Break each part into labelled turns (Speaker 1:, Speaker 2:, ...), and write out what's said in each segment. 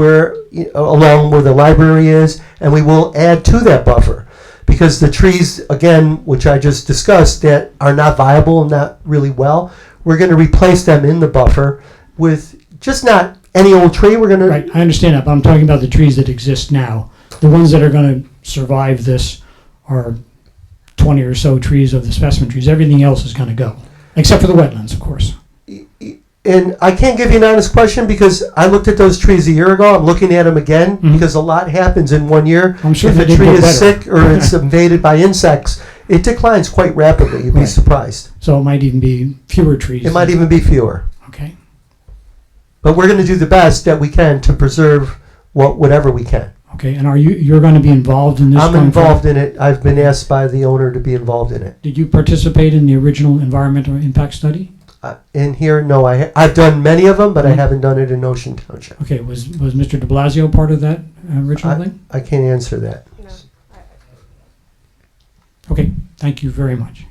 Speaker 1: where, you know, along where the library is, and we will add to that buffer. Because the trees, again, which I just discussed, that are not viable and not really well, we're gonna replace them in the buffer with just not any old tree, we're gonna,
Speaker 2: Right, I understand that, but I'm talking about the trees that exist now. The ones that are gonna survive this are twenty or so trees of the specimen trees. Everything else is gonna go, except for the wetlands, of course.
Speaker 1: and I can't give you an honest question because I looked at those trees a year ago. I'm looking at them again
Speaker 2: Mhm.
Speaker 1: because a lot happens in one year.
Speaker 2: I'm sure
Speaker 1: if
Speaker 2: they
Speaker 1: a
Speaker 2: did
Speaker 1: tree
Speaker 2: get
Speaker 1: is
Speaker 2: better.
Speaker 1: sick or it's invaded by insects, it declines quite rapidly. You'd be
Speaker 2: Right.
Speaker 1: surprised.
Speaker 2: So it might even be fewer trees.
Speaker 1: It might even be fewer.
Speaker 2: Okay,
Speaker 1: But we're going to do the best that we can to preserve what whatever we can.
Speaker 2: okay, and are you, you're gonna be involved in this?
Speaker 1: I'm
Speaker 2: going forward?
Speaker 1: involved in it. I've been asked by the owner to be involved in it.
Speaker 2: Did you participate in the original environmental impact study?
Speaker 1: Uh, in here, no, I ha- I've done many of them, but I
Speaker 2: Mhm.
Speaker 1: haven't done it in Ocean Township.
Speaker 2: Okay, was, was Mr. De Blasio part of that uh, original thing?
Speaker 1: I can't answer that.
Speaker 2: Okay, thank you very much.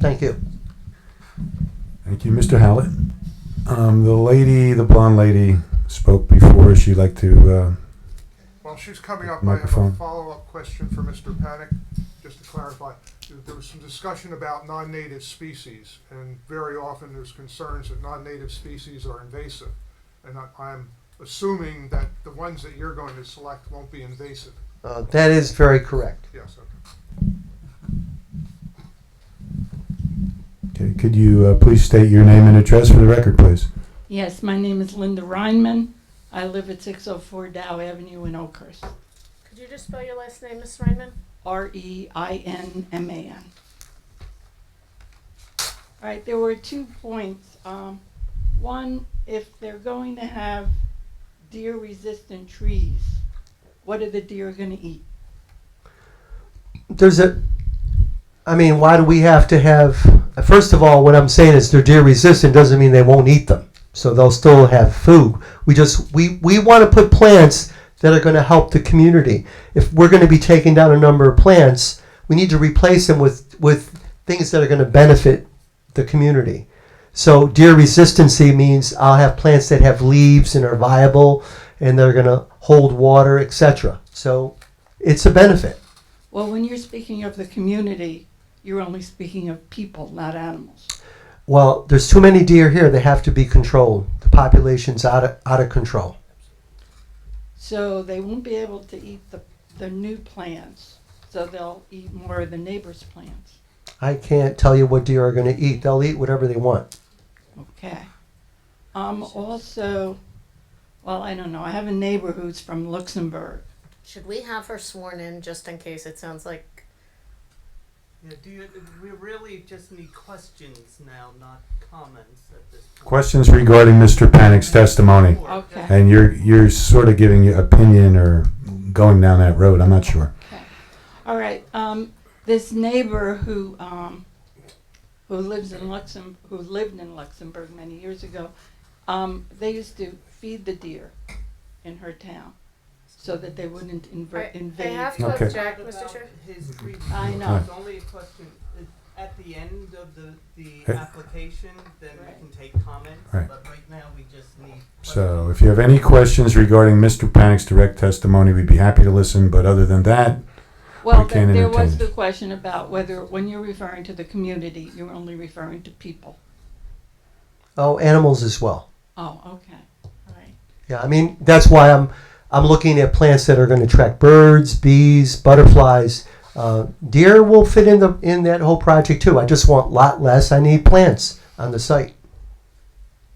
Speaker 1: Thank you.
Speaker 3: Thank you, Mr. Hallett. Um, the lady, the blonde lady, spoke before. She'd like to. Uh,
Speaker 4: While she's coming up, I have a
Speaker 3: Microphone.
Speaker 4: follow-up question for Mr. Panic, just to clarify. There- There was some discussion about non-native species, and very often there's concerns that non-native species are invasive. And I- I'm assuming that the ones that you're going to select won't be invasive.
Speaker 1: Uh, that is very correct.
Speaker 4: Yes, okay.
Speaker 3: okay, could you uh, please state your name and address for the record, please?
Speaker 5: Yes, my name is Linda Reinman. I live at 604 Dow Avenue in Oakhurst.
Speaker 6: Could you just spell your last name, Miss Reinman?
Speaker 5: R E I N M A N. All right, there were two points. Um, one, if they're going to have deer resistant trees, what are the deer going to eat?
Speaker 1: There's a. I mean, why do we have to have? First of all, what I'm saying is they're deer resistant doesn't mean they won't eat them. So they'll still have food. We just we we want to put plants that are going to help the community. If we're going to be taking down a number of plants, we need to replace them with with things that are going to benefit the community. So deer resistancy means I'll have plants that have leaves and are viable and they're going to hold water, etc. So it's a benefit.
Speaker 5: Well, when you're speaking of the community, you're only speaking of people, not animals.
Speaker 1: Well, there's too many deer here. They have to be controlled. The population's out of out of control.
Speaker 5: So they won't be able to eat the, the new plants, so they'll eat more of the neighbor's plants.
Speaker 1: I can't tell you what deer are going to eat. They'll eat whatever they want.
Speaker 5: Okay. Um, also, well, I don't know, I have a neighbor who's from Luxembourg.
Speaker 6: Should we have her sworn in just in case it sounds like
Speaker 7: Yeah, do you, we really just need questions now, not comments at this point.
Speaker 3: Questions regarding Mr. Panic's testimony,
Speaker 7: Or-
Speaker 5: Okay.
Speaker 3: and you're you're sort of giving your opinion or going down that road. I'm not sure.
Speaker 5: All right, um, this neighbor who, um, who lives in Luxem, who lived in Luxembourg many years ago, um, they used to feed the deer in her town so that they wouldn't inver-
Speaker 6: I, I
Speaker 5: invade.
Speaker 6: have to
Speaker 3: Okay.
Speaker 6: object,
Speaker 7: What
Speaker 6: Mr.
Speaker 7: about
Speaker 6: Chair?
Speaker 7: His
Speaker 3: Mm-hmm.
Speaker 7: three.
Speaker 5: I know.
Speaker 7: It's only a question, uh, at the end of the, the
Speaker 3: Hey.
Speaker 7: application, then we
Speaker 5: Right.
Speaker 7: can take comments,
Speaker 3: Right.
Speaker 7: but right now, we just need.
Speaker 3: So, if you have any questions regarding Mr. Panic's direct testimony, we'd be happy to listen. But other than that,
Speaker 5: Well,
Speaker 3: We can't
Speaker 5: there there was
Speaker 3: entertain.
Speaker 5: the question about whether, when you're referring to the community, you're only referring to people.
Speaker 1: Oh, animals as well.
Speaker 5: Oh, okay, all right.
Speaker 1: Yeah, I mean that's why I'm I'm looking at plants that are going to attract birds, bees, butterflies. Uh, deer will fit in the in that whole project too. I just want lot less. I need plants on the site.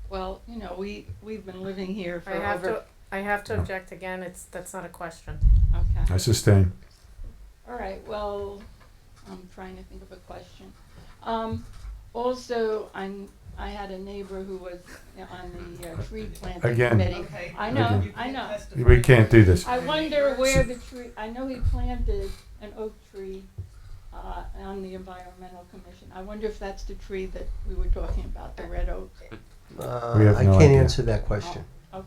Speaker 5: Well, you know, we, we've been living here for
Speaker 6: I have
Speaker 5: over,
Speaker 6: to, I have to
Speaker 3: No.
Speaker 6: object again, it's, that's not a question.
Speaker 5: okay.
Speaker 3: I sustain.
Speaker 5: All right, well, I'm trying to think of a question. Um, also, I'm, I had a neighbor who was on the uh, tree planting
Speaker 3: Again.
Speaker 5: committee.
Speaker 7: Okay.
Speaker 5: I know,
Speaker 7: You
Speaker 5: I
Speaker 7: can't
Speaker 5: know.
Speaker 7: testify.
Speaker 3: We can't do this.
Speaker 5: I wonder where the tree, I know he planted an oak tree, uh, on the environmental commission. I wonder if that's the tree that we were talking about, the red oak.
Speaker 1: Uh,
Speaker 3: We have
Speaker 1: I
Speaker 3: no
Speaker 1: can't
Speaker 3: idea.
Speaker 1: answer that question.
Speaker 5: Okay,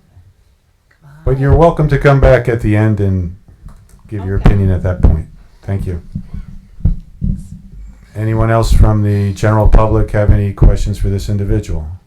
Speaker 3: But you're welcome to come back at the end and give your
Speaker 5: Okay.
Speaker 3: opinion at that point. Thank you. Anyone else from the general public have any questions for this individual?